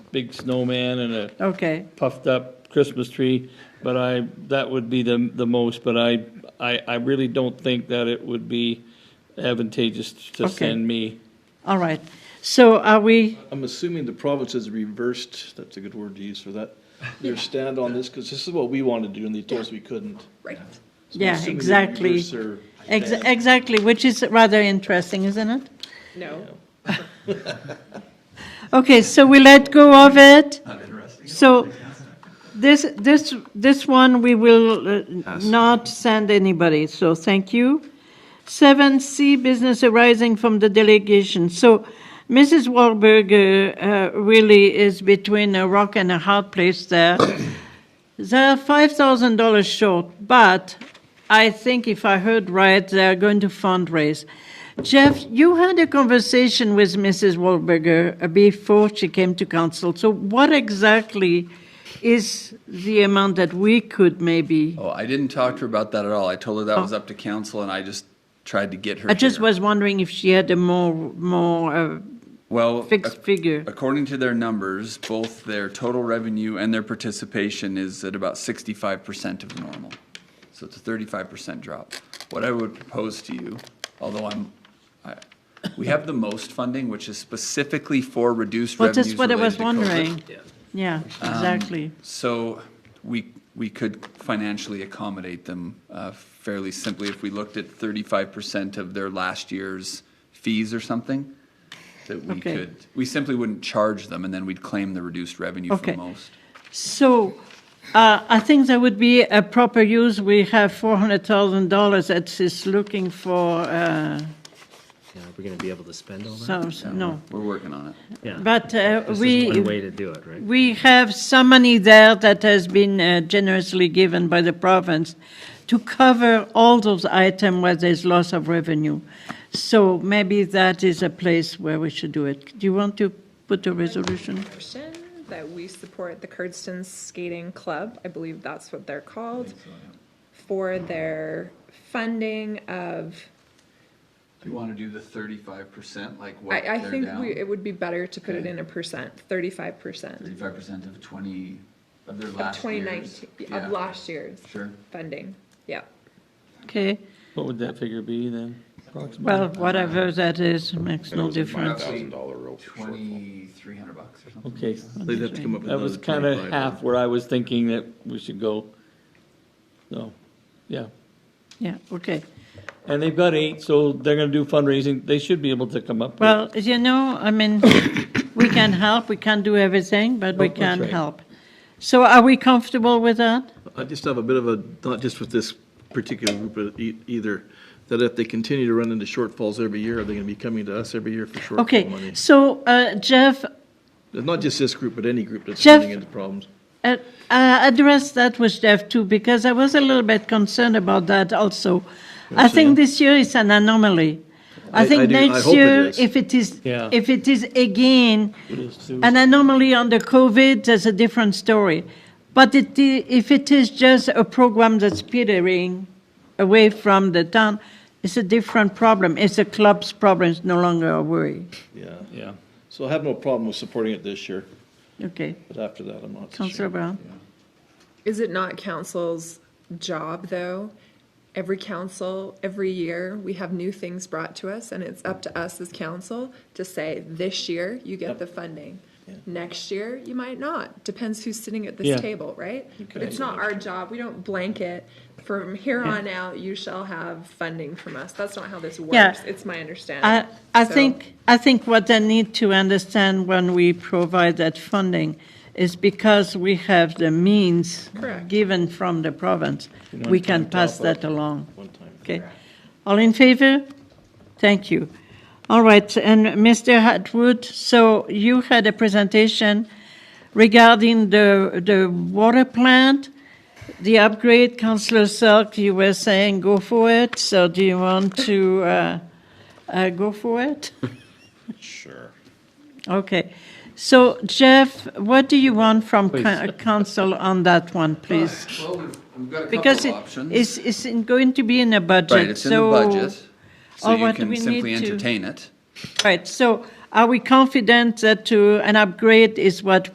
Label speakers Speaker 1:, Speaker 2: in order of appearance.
Speaker 1: big snowman and a
Speaker 2: Okay,
Speaker 1: puffed up Christmas tree, but I, that would be the, the most, but I, I, I really don't think that it would be advantageous to
Speaker 2: Okay.
Speaker 1: send me.
Speaker 2: all right. So are we,
Speaker 3: I'm assuming the province has reversed, that's a good word to use for that, their stand on this, because this is what we wanted to do, and they told us we couldn't.
Speaker 4: Right.
Speaker 3: So I'm
Speaker 2: Yeah,
Speaker 3: assuming they
Speaker 2: exactly.
Speaker 3: reversed their
Speaker 2: ex-
Speaker 3: stand.
Speaker 2: exactly, which is rather interesting, isn't it?
Speaker 4: No.
Speaker 2: Okay, so we let go of it. So this, this, this one, we will uh, not send anybody, so thank you. Seven C, business arising from the delegation. So Mrs. Wahlberger uh, really is between a rock and a hard place there. They're $5,000 short, but I think if I heard right, they're going to fundraise. Jeff, you had a conversation with Mrs. Wahlberger uh, before she came to council. So, what exactly is the amount that we could maybe?
Speaker 5: Oh, I didn't talk to her about that at all. I told her that was up to council, and I just tried to get her.
Speaker 2: I Oh. just
Speaker 5: here.
Speaker 2: was wondering if she had a more more uh,
Speaker 5: well
Speaker 2: fixed
Speaker 5: ac-
Speaker 2: figure.
Speaker 5: According to their numbers, both their total revenue and their participation is at about sixty-five percent of normal. So it's a thirty-five percent drop. What I would propose to you, although I'm, I, we have the most funding, which is specifically for reduced
Speaker 2: Well, that's
Speaker 5: revenues
Speaker 2: what I
Speaker 5: related
Speaker 2: was
Speaker 5: to COVID. Um,
Speaker 2: wondering. Yeah, exactly.
Speaker 5: So we, we could financially accommodate them uh, fairly simply if we looked at thirty-five percent of their last year's fees or something. That we
Speaker 2: Okay.
Speaker 5: could, we simply wouldn't charge them and then we'd claim the reduced revenue
Speaker 2: Okay.
Speaker 5: from most.
Speaker 2: So uh, I think that would be a proper use. We have $400,000 that is looking for uh,
Speaker 6: Yeah, are we gonna be able to spend all that?
Speaker 2: some, no.
Speaker 5: We're working on it.
Speaker 6: Yeah.
Speaker 2: But uh,
Speaker 6: This
Speaker 2: we.
Speaker 6: is one way to do it, right?
Speaker 2: We have some money there that has been uh, generously given by the province to cover all those items where there's loss of revenue. So maybe that is a place where we should do it. Do you want to put a resolution?
Speaker 4: Motion that we support the Curdston Skating Club, I believe that's what they're called, for their funding of,
Speaker 5: Do you want to do the thirty-five percent, like
Speaker 4: I, I think we, it would be better to put it in a percent, thirty-five percent
Speaker 5: Thirty-five percent of twenty, of their
Speaker 4: of twenty nineteen, of last year's
Speaker 5: Sure.
Speaker 4: funding, yeah.
Speaker 2: Okay,
Speaker 1: What would that figure be then? approximately?
Speaker 2: well, whatever that is, makes no difference.
Speaker 7: dollar real
Speaker 5: Twenty-three hundred bucks or something.
Speaker 1: Okay,
Speaker 3: They'd have to come up with
Speaker 1: that was
Speaker 3: another
Speaker 1: kind of
Speaker 3: 25.
Speaker 1: half where I was thinking that we should go. So, yeah.
Speaker 2: Yeah, okay.
Speaker 1: And they've got eight, so they're gonna do fundraising. They should be able to come up with.
Speaker 2: Well, you know, I mean, we can help, we can't do everything, but we
Speaker 1: Nope, Oh, that's
Speaker 2: can
Speaker 1: right.
Speaker 2: help. So are we comfortable with that?
Speaker 3: I just have a bit of a, not just with this particular group of e- either, that if they continue to run into shortfalls every year, are they going to be coming to us every year for shortfall money?
Speaker 2: Okay, so uh, Jeff,
Speaker 3: Not just this group, but any group that's
Speaker 2: Jeff-
Speaker 3: running into problems.
Speaker 2: Uh, I addressed that with Jeff too, because I was a little bit concerned about that also. I think this year is an anomaly. I
Speaker 3: I- I
Speaker 2: think
Speaker 3: do- I
Speaker 2: next
Speaker 3: hope it
Speaker 2: year,
Speaker 3: is.
Speaker 2: if it is,
Speaker 1: Yeah.
Speaker 2: if it is again
Speaker 1: It is too.
Speaker 2: an anomaly under COVID, there's a different story. But it, i- if it is just a program that's petering away from the town, it's a different problem. It's a club's problem, it's no longer a worry.
Speaker 3: Yeah.
Speaker 1: Yeah.
Speaker 3: So I have no problem with supporting it this year,
Speaker 2: Okay,
Speaker 3: but after that, I'm not so
Speaker 2: Councillor
Speaker 3: sure.
Speaker 2: Brown?
Speaker 4: Is it not council's job, though? Every council, every year, we have new things brought to us, and it's up to us as council to say, this year, you get the funding. Next year, you might not. Depends who's sitting at
Speaker 1: Yeah.
Speaker 4: this table, right? But it's not our job. We don't blanket, from here on out, you shall have funding from us. That's not how this works. It's my
Speaker 2: I,
Speaker 4: understanding.
Speaker 2: I
Speaker 4: So-
Speaker 2: think, I think what they need to understand when we provide that funding is because we have the means
Speaker 4: Correct.
Speaker 2: given from the province, we can pass that along.
Speaker 3: One time.
Speaker 2: Okay. All in favor? Thank you. All right, and Mr. Hatwood, so you had a presentation regarding the, the water plant, the upgrade, Councillor Selk, you were saying go for it, so do you want to, uh, uh, go for it?
Speaker 7: Sure.
Speaker 2: Okay. So Jeff, what do you want from coun- council on that one, please?
Speaker 5: Well, we've, we've got a
Speaker 2: Because
Speaker 5: couple
Speaker 2: it-
Speaker 5: Uh, options.
Speaker 2: it's, it's in- going to be in a budget, so.
Speaker 5: Right, it's in the budget, so
Speaker 2: or
Speaker 5: you
Speaker 2: what
Speaker 5: can
Speaker 2: we
Speaker 5: simply
Speaker 2: need to-
Speaker 5: entertain it.
Speaker 2: Right, so are we confident that to, an upgrade is what